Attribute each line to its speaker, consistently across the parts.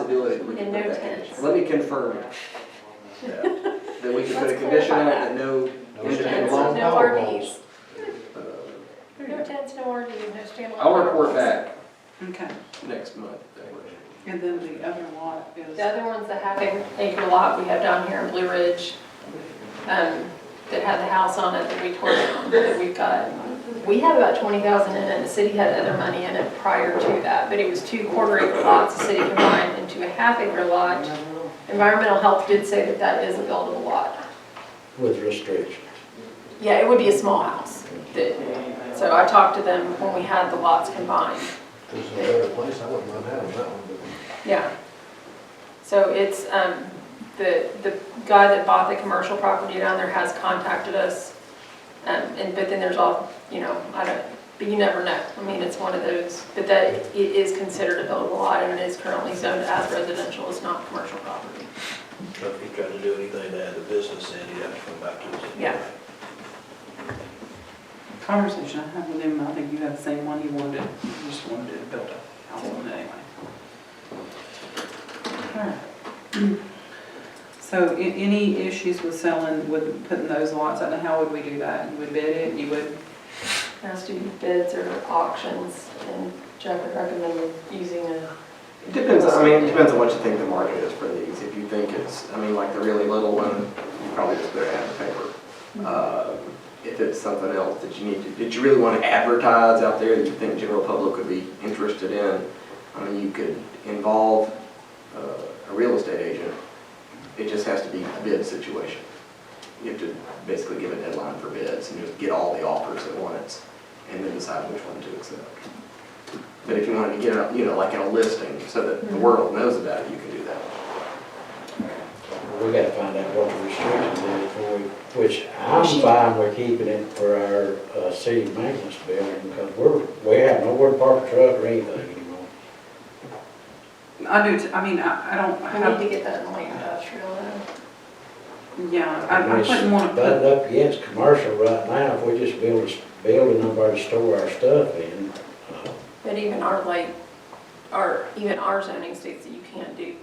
Speaker 1: do it, we can
Speaker 2: And
Speaker 1: put
Speaker 2: no
Speaker 1: that condition.
Speaker 2: tents.
Speaker 1: Let me confirm
Speaker 3: Yeah.
Speaker 1: that we can put a
Speaker 2: Let's
Speaker 1: condition on it
Speaker 2: clarify
Speaker 1: that no
Speaker 3: No
Speaker 1: independent
Speaker 3: tents,
Speaker 1: long
Speaker 2: no
Speaker 1: power
Speaker 2: RVs.
Speaker 1: poles. Uh,
Speaker 2: No tents, no RVs, no standalone.
Speaker 1: I'll report back
Speaker 4: Okay,
Speaker 1: next month. that way.
Speaker 4: and then the other lot is,
Speaker 2: The other ones that have an acre lot, we have down here in Blue Ridge, um, that had the house on it that we tore down, that we got. We had about twenty thousand in it, the city had other money in it prior to that, but it was two quarter acre lots, the city combined into a half acre lot. Environmental health did say that that is a buildable lot.
Speaker 5: With restrictions.
Speaker 2: Yeah, it would be a small house, that, so I talked to them when we had the lots combined.
Speaker 5: There's no better place, I wouldn't mind having that one,
Speaker 2: Yeah. So it's, um, the, the guy that bought the commercial property down there has contacted us. Um, and, but then there's all, you know, I don't, but you never know. I mean, it's one of those, but that it is considered a buildable lot and it is currently zoned as residential, it's not commercial property.
Speaker 6: So If you tried to do anything to add to business, then you'd have to come back to us. anyway.
Speaker 2: Yeah.
Speaker 4: conversation I had with him, I think you had the same one, he wanted, he just wanted to build a house on it anyway. Alright. So a- any issues with selling, with putting those lots out, how would we do that? You would bid it, you would,
Speaker 2: Has to be bids or auctions and Jeff would recommend using a
Speaker 1: It depends, I mean, it depends on what you think the market is for these. If you think it's, I mean, like the really little one, you probably just better have the paper. Uh, If it's something else that you need to, that you really want to advertise out there that you think general public would be interested in, I mean, you could involve uh, a real estate agent. It just has to be a bid situation. You have to basically give a deadline for bids and just get all the offers at once and then decide which one to accept. But if you wanted to get it, you know, like in a listing, so that
Speaker 2: Mm-hmm.
Speaker 1: the world knows about it, you can do that.
Speaker 5: but we gotta find out what the restrictions is before we, which I'm fine with keeping it for our, uh, city maintenance building, because we're, we have nowhere to park a truck or anything anymore.
Speaker 4: I do, t- I mean, I, I don't
Speaker 2: We need to
Speaker 4: have,
Speaker 2: get that in the light industrial though.
Speaker 4: yeah, I, I wouldn't wanna put
Speaker 5: Butted up against commercial right now, if we just build a s- building up our store our stuff in, uh,
Speaker 2: But even our like, our, even our zoning states that you can't do
Speaker 5: we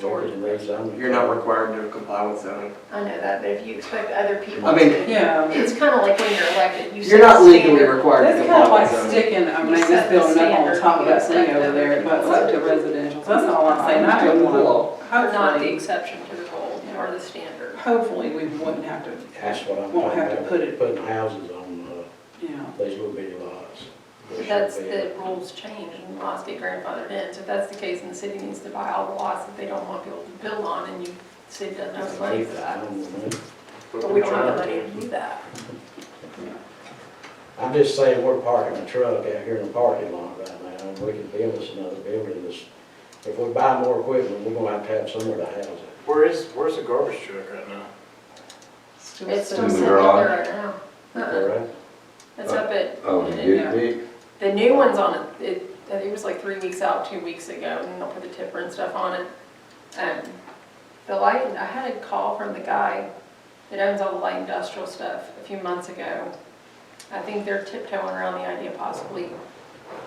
Speaker 2: storage.
Speaker 5: can rezone it.
Speaker 1: You're not required to comply with zoning.
Speaker 2: I know that, but if you expect other people
Speaker 1: I mean-
Speaker 2: to-
Speaker 4: Yeah.
Speaker 2: It's kind of like when you're elected, you set
Speaker 1: You're
Speaker 2: the
Speaker 1: not legally
Speaker 2: standard.
Speaker 1: required to
Speaker 4: That's kind of
Speaker 1: comply
Speaker 4: like
Speaker 1: with zoning.
Speaker 4: sticking, I mean,
Speaker 2: You set
Speaker 4: this
Speaker 2: the
Speaker 4: building up on
Speaker 2: standard,
Speaker 4: top of
Speaker 2: you
Speaker 4: that thing
Speaker 2: expect
Speaker 4: over there,
Speaker 2: other
Speaker 4: but
Speaker 2: people
Speaker 4: up to
Speaker 2: to-
Speaker 4: residential, that's all I'm saying, I
Speaker 1: Doing
Speaker 4: don't
Speaker 1: the
Speaker 4: want.
Speaker 1: law.
Speaker 2: We're Not the
Speaker 4: Hopefully,
Speaker 2: exception to the rule or the standard.
Speaker 4: hopefully we wouldn't have to,
Speaker 5: That's what I'm talking about.
Speaker 4: Won't have to put it-
Speaker 5: Putting houses on, uh,
Speaker 4: you know,
Speaker 5: these little bitty lots.
Speaker 2: That's the rules change and laws get grandfathered in. So if that's the case and the city needs to buy all the lots that they don't want people to build on and you, the city doesn't have the money for that. But we don't have the money to do that.
Speaker 5: I'm just saying, we're parking a truck out here in the parking lot right now, and we can build us another building, this, if we buy more equipment, we're gonna have to have somewhere to house it.
Speaker 6: Where is, where's the garbage truck right now?
Speaker 4: still
Speaker 2: It's
Speaker 4: sit-
Speaker 2: still sitting up there right now. Uh-uh.
Speaker 5: Alright?
Speaker 2: It's up at.
Speaker 7: Oh,
Speaker 2: it-
Speaker 7: you get me?
Speaker 2: The new one's on it, it, I think it was like three weeks out, two weeks ago, and they'll put the tipper and stuff on it. Um, the light, I had a call from the guy that owns all the light industrial stuff a few months ago. I think they're tiptoeing around the idea possibly,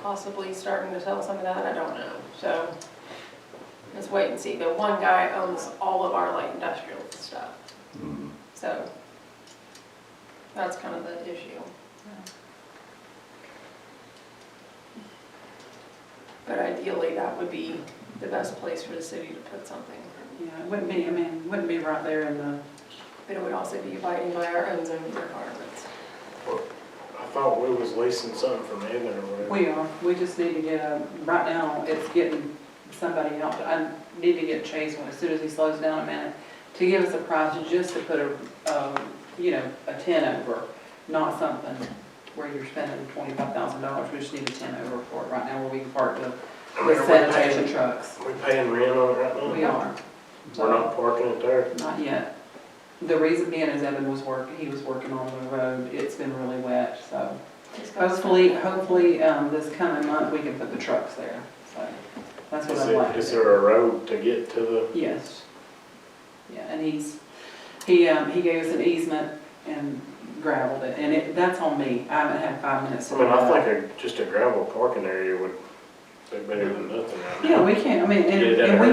Speaker 2: possibly starting to sell some of that, I don't know, so. Let's wait and see, but one guy owns all of our light industrial stuff,
Speaker 7: Mm.
Speaker 2: so. That's kind of the issue. But ideally, that would be the best place for the city to put something.
Speaker 4: Yeah, it wouldn't be, I mean, it wouldn't be right there in the,
Speaker 2: But it would also be abiding by our own zoning requirements.
Speaker 6: I thought we was leasing something from Evan or whatever.
Speaker 4: we are, we just need to get a, right now, it's getting somebody out, I need to get Chase one as soon as he slows down a minute, to give us a price just to put a, um, you know, a ten over, not something where you're spending twenty-five thousand dollars, we just need a ten over for it right now, where we can park the
Speaker 6: I mean,
Speaker 4: the
Speaker 6: are we
Speaker 4: sanitation
Speaker 6: paying-
Speaker 4: trucks.
Speaker 6: Are we paying rent on it right now?
Speaker 4: We are,
Speaker 6: We're not parking it there?
Speaker 4: not yet. The reason being is Evan was working, he was working on the road, it's been really wet, so hopefully, hopefully, um, this coming month, we can put the trucks there, so that's what
Speaker 6: Is
Speaker 4: I'd like
Speaker 6: it,
Speaker 4: to
Speaker 6: is
Speaker 4: do.
Speaker 6: there a road to get to the?
Speaker 4: Yes. Yeah, and he's, he, um, he gave us an easement and gravelled it, and it, that's on me, I haven't had five minutes. to
Speaker 6: I mean,
Speaker 4: do that.
Speaker 6: I think a- just a gravel parking area would be better than nothing right now.
Speaker 4: Yeah, we can, I mean, and,
Speaker 6: Get it
Speaker 4: and we
Speaker 6: out.